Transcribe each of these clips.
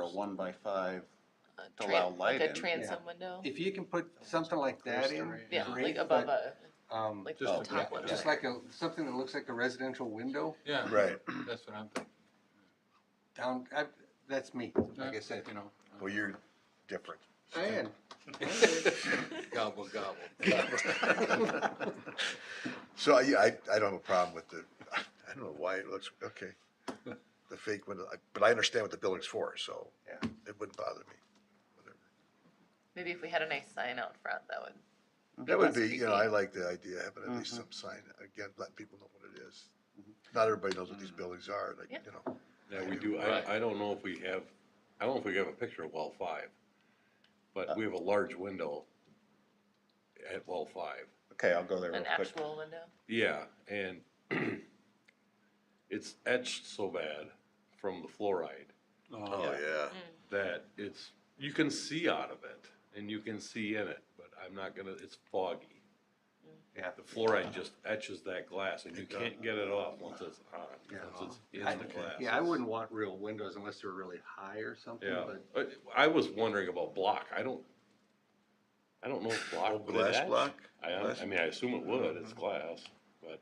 a one by five, a to tran- allow light in. Like a transom window, If you can put something like that in, Upholstery. yeah, great, like above but, a, um, like just the a top yeah, window. one. just like a, something that looks like a residential window Yeah. Right. That's what I'm thinking. down, I, that's me, like I That's, said. You know. well, you're different. I am. Gobble, gobble. So I, I, I don't have a problem with the, I don't know why it looks, okay. The fake window, I- but I understand what the building's for, so. Yeah. It wouldn't bother me. Maybe if we had a nice sign out front, that would. That less would be, you know, creepy. I like the idea, of having at least Mhm. some sign, again, let people know what it is. Not everybody knows what these Mm. buildings are, like, Yeah. you know, Now, we do, Right. I, I don't know if we have, I don't know if we have a picture of well five, but we have a large window at well five. Okay, I'll go there real An quick. actual window, Yeah, and it's etched so bad from the fluoride Oh, oh, yeah. that it's, you can see out of it and you can see in it, but I'm not gonna, it's foggy. Yeah. The fluoride just etches that glass and you It does. can't get it off once it's on, Yeah. once it's I- in the glass. Yeah, I wouldn't want real windows unless they're really high or something, Yeah, but I- I was wondering about block, I don't, I don't know if block Oh, would glass etch. block? I, Glass- I mean, I assume it would, it's glass, but, Uh-huh.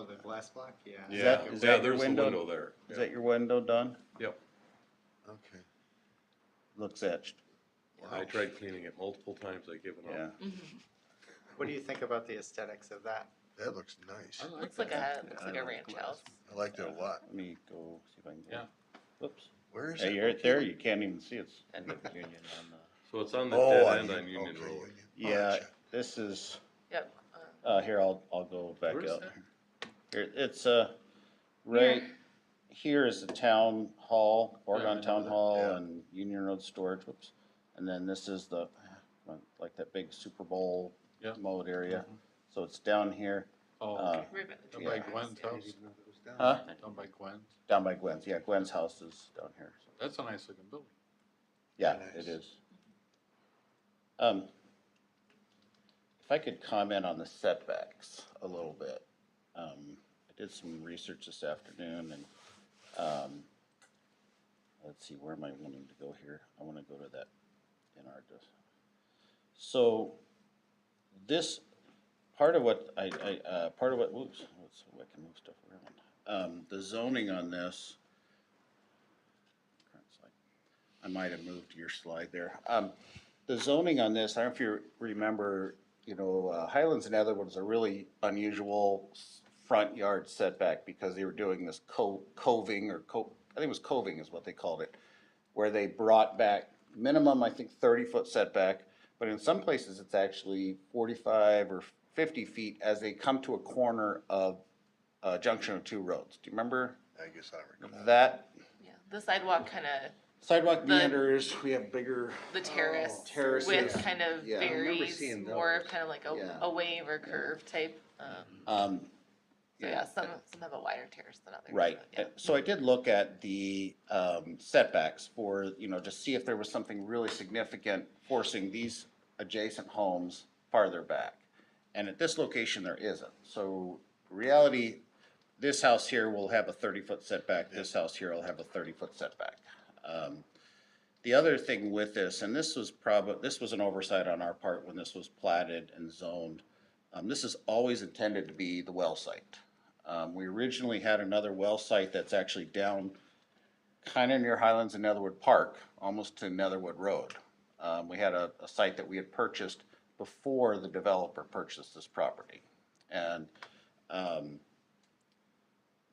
Oh, the glass block, yeah. yeah, that- is yeah, that your there's the window? window there. Is that your window done? Yep, Okay. Looks etched. I tried cleaning it multiple times, I give it Yeah. up. What do you think about the aesthetics of that? That looks nice. looks like a, looks I like a like ranch glass. house. I like that a lot. Let me go see if I can. Yeah. Whoops. Where is Yeah, it? you're right there. You can't even see it's end of Union on the. So it's on the Oh, dead on end Union, on Union okay, Road. Union. Yeah, Gotcha. this is, Yep, uh, uh, here, I'll, I'll go back Where is up. that? Here, it's, uh, right here is the town hall, Yeah, I Oregon know Town that. Hall Yeah. and Union Road Storage, whoops. And then this is the, like that big Super Bowl Yeah. mode area. So it's down here, Oh, uh, okay. right by the Down yeah. by treehouse, Gwen's yeah. house, huh, down by Gwen. down by Gwen's, yeah, Gwen's house is down here. so- That's a nice looking building. Yeah, Nice. it is. Um, if I could comment on the setbacks a little bit. Um, I did some research this afternoon and, um, let's see, where am I wanting to go here? I wanna go to that in our, dis- so this, part of what I, I, uh, part of what, whoops, let's, I can move stuff around. Um, the zoning on this. Current slide. I might have moved your slide there. Um, the zoning on this, I don't know if you remember, you know, uh, Highlands and Atherwood was a really unusual s- front yard setback because they were doing this co- coving or co- I think it was coving is what they called it, where they brought back minimum, I think, thirty foot setback, but in some places it's actually forty-five or fifty feet as they come to a corner of a junction of two roads. Do you remember I guess I recall. that? Yeah, the sidewalk kind of, Sidewalk The- meanders, we have bigger Oh, the terrace terraces, with kind of yeah. I remember varies, seeing more of those. kind of like Yeah. a, a wave or curve type. Um, Um, so yeah, some, some have a wider terrace than others. right, but yeah. Uh, so I did look at the, um, setbacks for, you know, to see if there was something really significant forcing these adjacent homes farther back. And at this location, there isn't, so reality, this house here will have a thirty-foot setback, this house here will have a thirty-foot setback. Um, The other thing with this, and this was probably, this was an oversight on our part when this was platted and zoned, um, this is always intended to be the well site. Um, we originally had another well site that's actually down kinda near Highlands and Netherwood Park, almost to Netherwood Road. Um, we had a, a site that we had purchased before the developer purchased this property. And, um,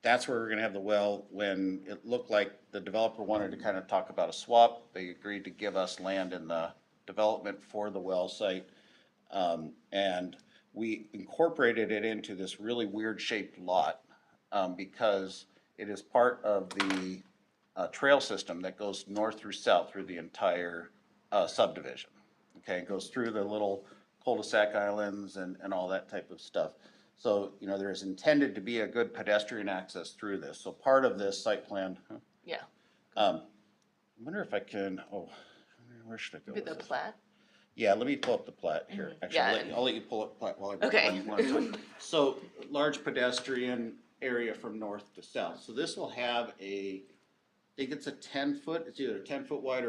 that's where we're gonna have the well, when it looked like the developer wanted to kind of talk about a swap, they agreed to give us land in the development for the well site. Um, and we incorporated it into this really weird shaped lot, um, because it is part of the, uh, trail system that goes north through south through the entire, uh, subdivision. Okay, it goes through the little cul-de-sac islands and, and all that type of stuff. So, you know, there is intended to be a good pedestrian access through this, so part of this site plan, huh? Yeah, um, I wonder if I can, oh, where should I go be with the this? plat. Yeah, let me pull up the plat here. Actually, I'll Mm-hmm. Yeah. let you, I'll let you pull up plat while I. Okay. while you want to talk. So, large pedestrian area from north to south. So this will have a, I think it's a ten foot, it's either ten foot wide or